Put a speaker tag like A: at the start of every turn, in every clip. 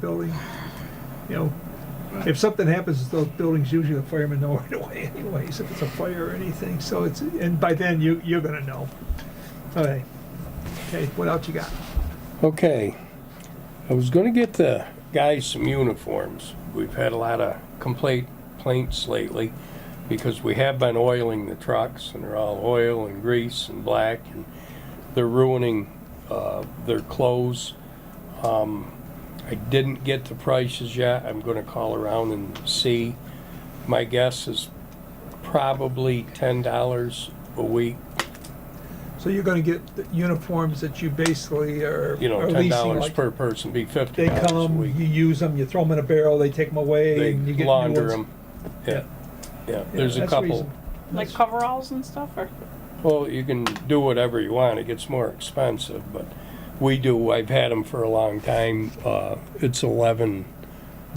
A: building, you know, if something happens to those buildings, usually the firemen know right away anyways, if it's a fire or anything, so it's, and by then you, you're gonna know. Okay, okay, what else you got?
B: Okay, I was gonna get the guys some uniforms. We've had a lot of complaint, complaints lately because we have been oiling the trucks and they're all oil and grease and black and they're ruining, uh, their clothes. Um, I didn't get the prices yet. I'm gonna call around and see. My guess is probably ten dollars a week,
A: So you're gonna get the uniforms that you basically are
B: you know,
A: are
B: ten
A: leasing,
B: dollars
A: like-
B: per person, be fifty
A: They
B: dollars a
A: come,
B: week.
A: you use them, you throw them in a barrel, they take them away
B: they
A: and you get new ones.
B: launder them. Yeah, yeah,
A: Yeah,
B: there's a
A: that's
B: couple.
A: reasonable.
C: Like coveralls and stuff, or?
B: Well, you can do whatever you want, it gets more expensive, but we do, I've had them for a long time. Uh, it's eleven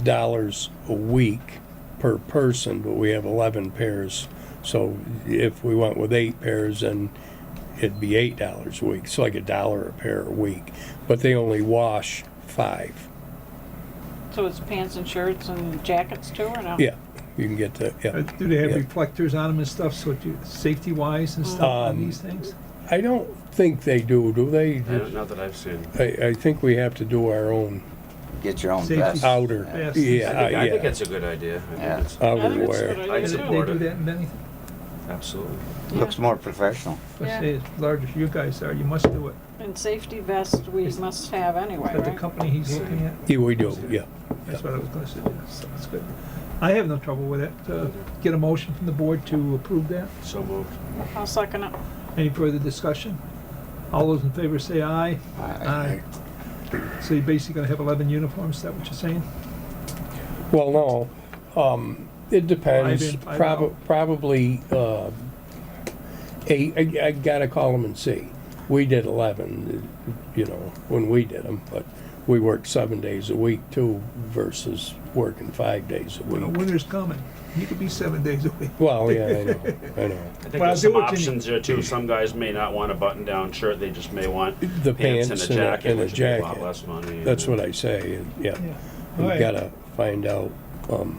B: dollars a week per person, but we have eleven pairs. So if we went with eight pairs, then it'd be eight dollars a week, so like a dollar a pair a week. But they only wash five.
C: So it's pants and shirts and jackets too, or no?
B: Yeah, you can get the,
A: Uh,
B: yeah.
A: Do they have
B: Yeah.
A: reflectors on them and stuff, so you, safety wise and stuff on
B: Um,
A: these things?
B: I don't think they do, do they?
D: I don't- Not that I've seen.
B: I, I think we have to do our own
E: Get your own
A: Safety.
E: vest.
B: outer,
A: Yeah. Yes.
D: I
B: yeah,
D: think, I think
B: Uh, yeah,
D: that's a good idea. I
E: Yeah.
C: I think
D: think it's,
C: it's a good
B: outerwear.
C: idea,
D: I'd
C: too.
A: They
D: support
A: do
D: it.
A: that in anything?
D: absolutely.
C: Yeah.
E: Looks more professional.
A: Let's
C: Yeah.
A: say as large as you guys are, you must do it.
C: And safety vest we must have anyway,
A: But the
C: right?
A: company he's looking at,
B: Yeah, we do, yeah.
A: that's what I was gonna suggest, so that's good. I have no trouble with it. Uh, Get a motion from the board to approve that.
D: So moved.
C: I'll second it.
A: Any further discussion? All those in favor say aye.
E: I-
A: So you're basically gonna have 11 uniforms, is that what you're saying?
B: Well, no, um, it depends,
A: Five in, five
B: prob-
A: out.
B: probably, uh, eight, I, I gotta call them and see. We did eleven, you know, when we did them, but we worked seven days a week too versus working five days a
A: When the
B: week.
A: winter's coming, you could be seven days a week.
B: Well, yeah, I know, I know.
D: I
A: Well,
D: think
A: I
D: there's
A: do
D: some
A: what you-
D: options there too. Some guys may not want a button-down shirt, they just may want
B: The
D: pants and a jacket,
B: and a
D: which would be a lot
B: jacket.
D: less money.
B: That's what I say, yeah.
A: Yeah. All
B: We
A: right.
B: gotta find out, um,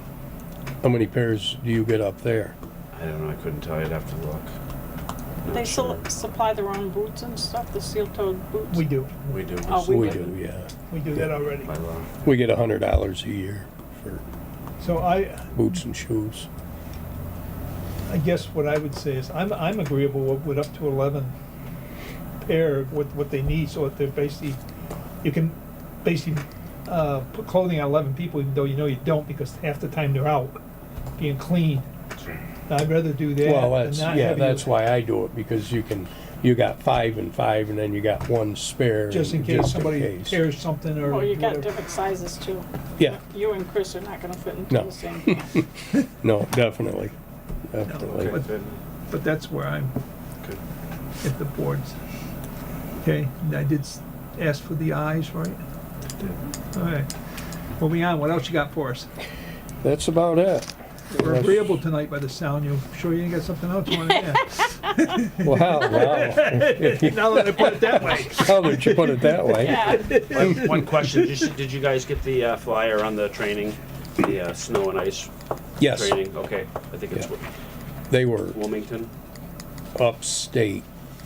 B: how many pairs do you get up there?
D: I don't know, I couldn't tell you, I'd have to look. Not
C: They
D: sure.
C: still supply their own boots and stuff, the seal-toed boots?
A: We do,
D: We do,
C: Oh,
D: by
C: we-
B: We
C: do.
B: do, yeah.
A: we do that already.
D: law.
B: We get a hundred dollars a year for
A: So I,
B: boots and shoes.
A: I guess what I would say is, I'm, I'm agreeable with, with up to eleven pair of what, what they need, so if they're basically, you can basically, uh, put clothing on eleven people, even though you know you don't, because half the time they're out being clean. I'd rather do that
B: Well,
A: than
B: that's,
A: not
B: yeah,
A: have
B: that's
A: you-
B: why I do it, because you can, you got five and five, and then you got one spare.
A: Just in case somebody
B: case.
A: tears something or
C: Well, Oh, you got
A: whatever.
C: different sizes too.
B: Yeah,
C: You and Chris are not gonna fit into
B: No.
C: the same. pants.
B: no, definitely, definitely.
A: But- But that's where I'm,
D: Good.
A: at the boards. Okay, and I did s- ask for the eyes, right? All right, moving on, what else you got for us?
B: That's about it.
A: We're agreeable tonight by the sound. You sure you ain't got something else you want to add?
B: Wow, wow,
A: Now that I put it that way.
B: now that you put it that way.
C: Yeah,
D: One one question, did you- did you guys get the uh, flyer on the training, the uh, snow and ice
B: Yes,
D: training? Okay, I think it's
B: Yeah. they were
D: Wilmington.
B: upstate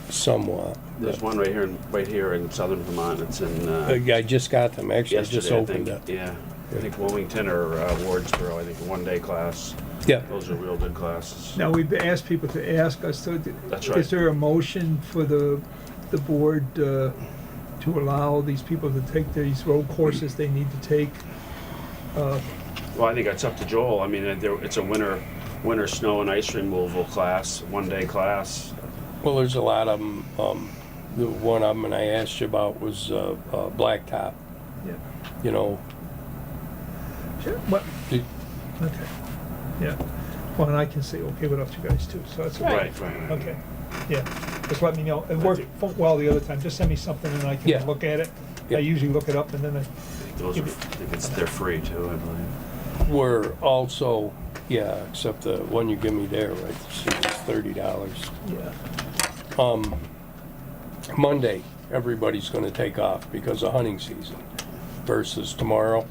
B: somewhat.
D: There's one right here, in- right here in southern Vermont, it's in, uh,
B: Uh, I just got them, actually, I just
D: yesterday, I
B: opened
D: think.
B: up.
D: Yeah, I think Wilmington or uh, Wardsboro, I think, one-day class.
B: Yeah,
D: Those are real good classes.
A: Now, we've asked people to ask us, so d-
D: That's right.
A: is there a motion for the, the board uh, to allow these people to take these road courses they need to take? Uh,
D: Well, I think it's up to Joel. I mean, uh, there- it's a winter, winter snow and ice removal class, one-day class.
B: Well, there's a lot of them. Um, the one of them I asked you about was uh, uh, blacktop.
A: Yeah.
B: You know,
A: Sure, What,
B: it-
A: okay, yeah. Well, and I can say, okay, what else you guys do, so that's okay.
D: Right, right, right.
A: Okay, yeah, just let me know. It worked fo- well the other time, just send me something and I
B: Yeah.
A: can look at it. I
B: Yeah.
A: usually look it up and then I
D: Those are, I think it's, they're free too, I believe.
B: we're also, yeah, except the one you give me there, right? It's thirty dollars.
A: Yeah,
B: Um, Monday, everybody's going to take off because of hunting season, versus tomorrow.